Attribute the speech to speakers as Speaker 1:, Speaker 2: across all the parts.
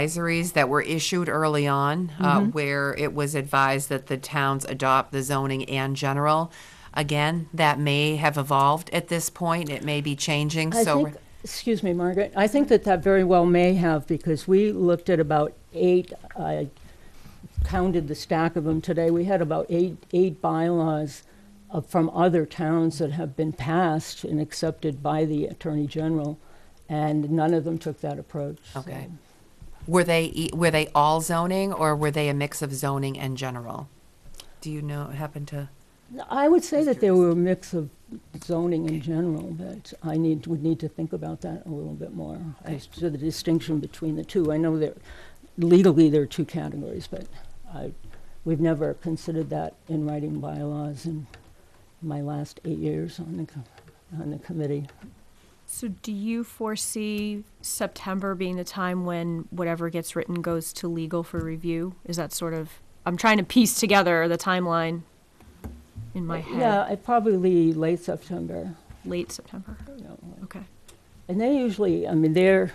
Speaker 1: advisories that were issued early on, uh,
Speaker 2: Mm-hmm.
Speaker 1: where it was advised that the towns adopt the zoning and general. Again, that may have evolved at this point. It may be changing,
Speaker 2: I
Speaker 1: so.
Speaker 2: think, excuse me, Margaret, I think that that very well may have, because we looked at about eight, I counted the stack of them today, we had about eight, eight bylaws uh, from other towns that have been passed and accepted by the Attorney General, and none of them took that approach. so-
Speaker 1: Okay. Were they, e- were they all zoning or were they a mix of zoning and general? Do you know, happen to?
Speaker 2: I would say that they were a mix of zoning in general, but I need, would need to think about that a little bit more as to the distinction between the two. I know that legally there are two categories, but I, we've never considered that in writing bylaws in my last eight years on the, co- on the committee.
Speaker 3: So do you foresee September being the time when whatever gets written goes to legal for review? Is that sort of, I'm trying to piece together the timeline in my head,
Speaker 2: Yeah, I probably late September,
Speaker 3: late September,
Speaker 2: you know,
Speaker 3: okay.
Speaker 2: And they usually, I mean, they're,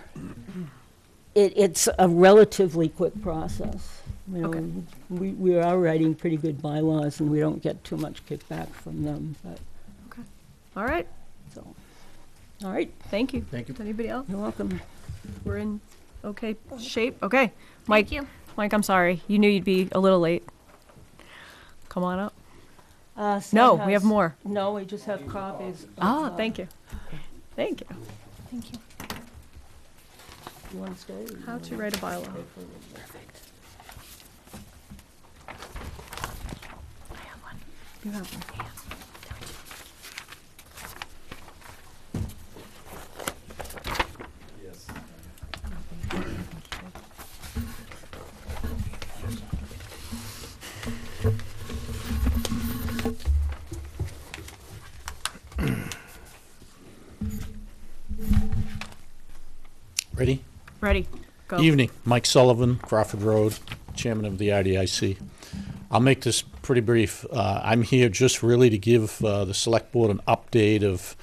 Speaker 2: it, it's a relatively quick process. You know,
Speaker 3: Okay.
Speaker 2: and we, we are writing pretty good bylaws and we don't get too much kickback from them, but,
Speaker 3: All right,
Speaker 2: so. All right,
Speaker 3: thank you.
Speaker 4: Thank you.
Speaker 3: Anybody else?
Speaker 2: you're welcome.
Speaker 3: We're in okay shape, okay. Mike, Mike, I'm sorry, you knew you'd be a little late. Come on up.
Speaker 2: Uh,
Speaker 3: No, we have
Speaker 2: Stenhouse-
Speaker 3: more.
Speaker 2: No, we just have copies. of,
Speaker 3: Ah,
Speaker 2: uh,
Speaker 3: thank you. Thank you. Thank you.
Speaker 2: you wanna stay or you
Speaker 3: How
Speaker 2: wanna-
Speaker 3: to write a bylaw. I have one. You have one.
Speaker 4: Ready?
Speaker 3: Ready, go.
Speaker 4: Evening, Mike Sullivan, Crawford Road, Chairman of the IDIC. I'll make this pretty brief. Uh, I'm here just really to give uh, the Select Board an update of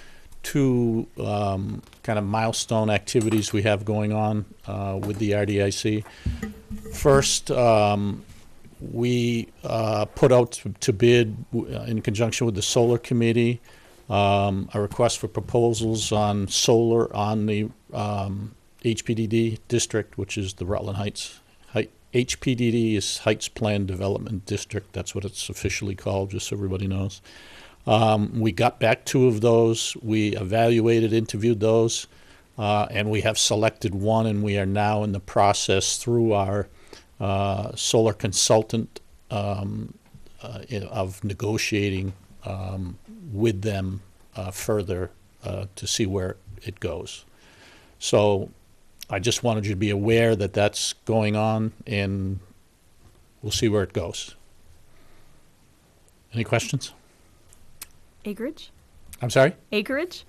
Speaker 4: two um, kind of milestone activities we have going on uh, with the IDIC. First, um, we uh, put out to- to bid, w- uh, in conjunction with the Solar Committee, um, a request for proposals on solar on the um, HPDD district, which is the Rutland Heights. Hei- HPDD is Heights Plan Development District. That's what it's officially called, just so everybody knows. Um, we got back two of those. We evaluated, interviewed those, uh, and we have selected one, and we are now in the process through our uh, solar consultant um, uh, in- of negotiating um, with them uh, further uh, to see where it goes. So I just wanted you to be aware that that's going on, and we'll see where it goes. Any questions?
Speaker 3: Acreage?
Speaker 4: I'm sorry?
Speaker 3: Acreage?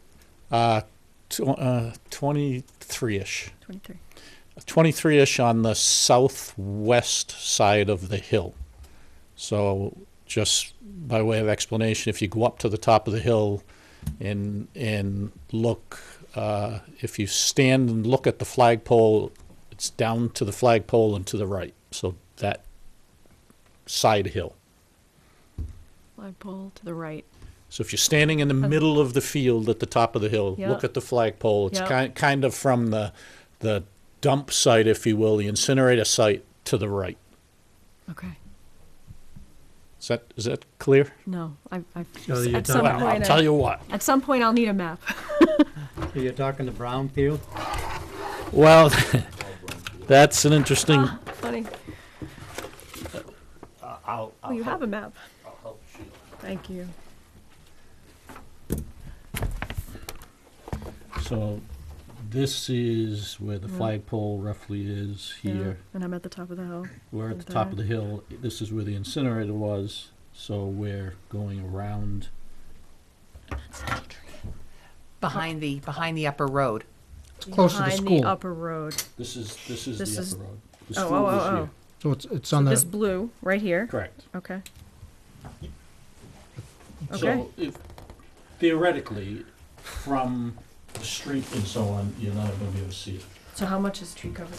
Speaker 4: Uh, tw- uh, 23-ish.
Speaker 3: 23.
Speaker 4: 23-ish on the southwest side of the hill. So just by way of explanation, if you go up to the top of the hill and, and look, uh, if you stand and look at the flagpole, it's down to the flagpole and to the right. So that side hill.
Speaker 3: Flagpole to the right.
Speaker 4: So if you're standing in the middle of the field at the top of the hill,
Speaker 3: Yeah.
Speaker 4: look at the flagpole. It's
Speaker 3: Yeah.
Speaker 4: kind kind of from the the dump site, if you will, the incinerator site to the right.
Speaker 3: Okay.
Speaker 4: Is that is that clear?
Speaker 3: No, I, I,
Speaker 5: So you're
Speaker 3: at some
Speaker 5: done.
Speaker 4: Well, I'll
Speaker 3: point,
Speaker 4: tell
Speaker 3: I-
Speaker 4: you what.
Speaker 3: at some point I'll need a map.
Speaker 5: So You're talking the brown field?
Speaker 4: Well, that's an interesting.
Speaker 3: Funny. Oh, you have a map. Thank you.
Speaker 4: So this is where
Speaker 3: Mm.
Speaker 4: the flagpole roughly is
Speaker 3: Yeah,
Speaker 4: here.
Speaker 3: And I'm at the top of the hill.
Speaker 4: We're at
Speaker 3: Is
Speaker 4: the top of
Speaker 3: that-
Speaker 4: the hill. This is where the incinerator was. So we're going around.
Speaker 1: Behind the, behind the upper road.
Speaker 6: It's close to the
Speaker 3: Behind the
Speaker 6: school.
Speaker 3: upper road.
Speaker 4: This is this is
Speaker 3: This
Speaker 4: the
Speaker 3: is-
Speaker 4: upper road. The
Speaker 3: Oh,
Speaker 4: school
Speaker 3: oh,
Speaker 4: is
Speaker 3: oh,
Speaker 4: here.
Speaker 3: oh.
Speaker 6: So it's, it's on
Speaker 3: This
Speaker 6: the,
Speaker 3: blue, right here.
Speaker 4: Correct.
Speaker 3: Okay. Okay.
Speaker 4: So if, theoretically, from the street and so on, you're not gonna be able to see it.
Speaker 3: So how much is tree cover?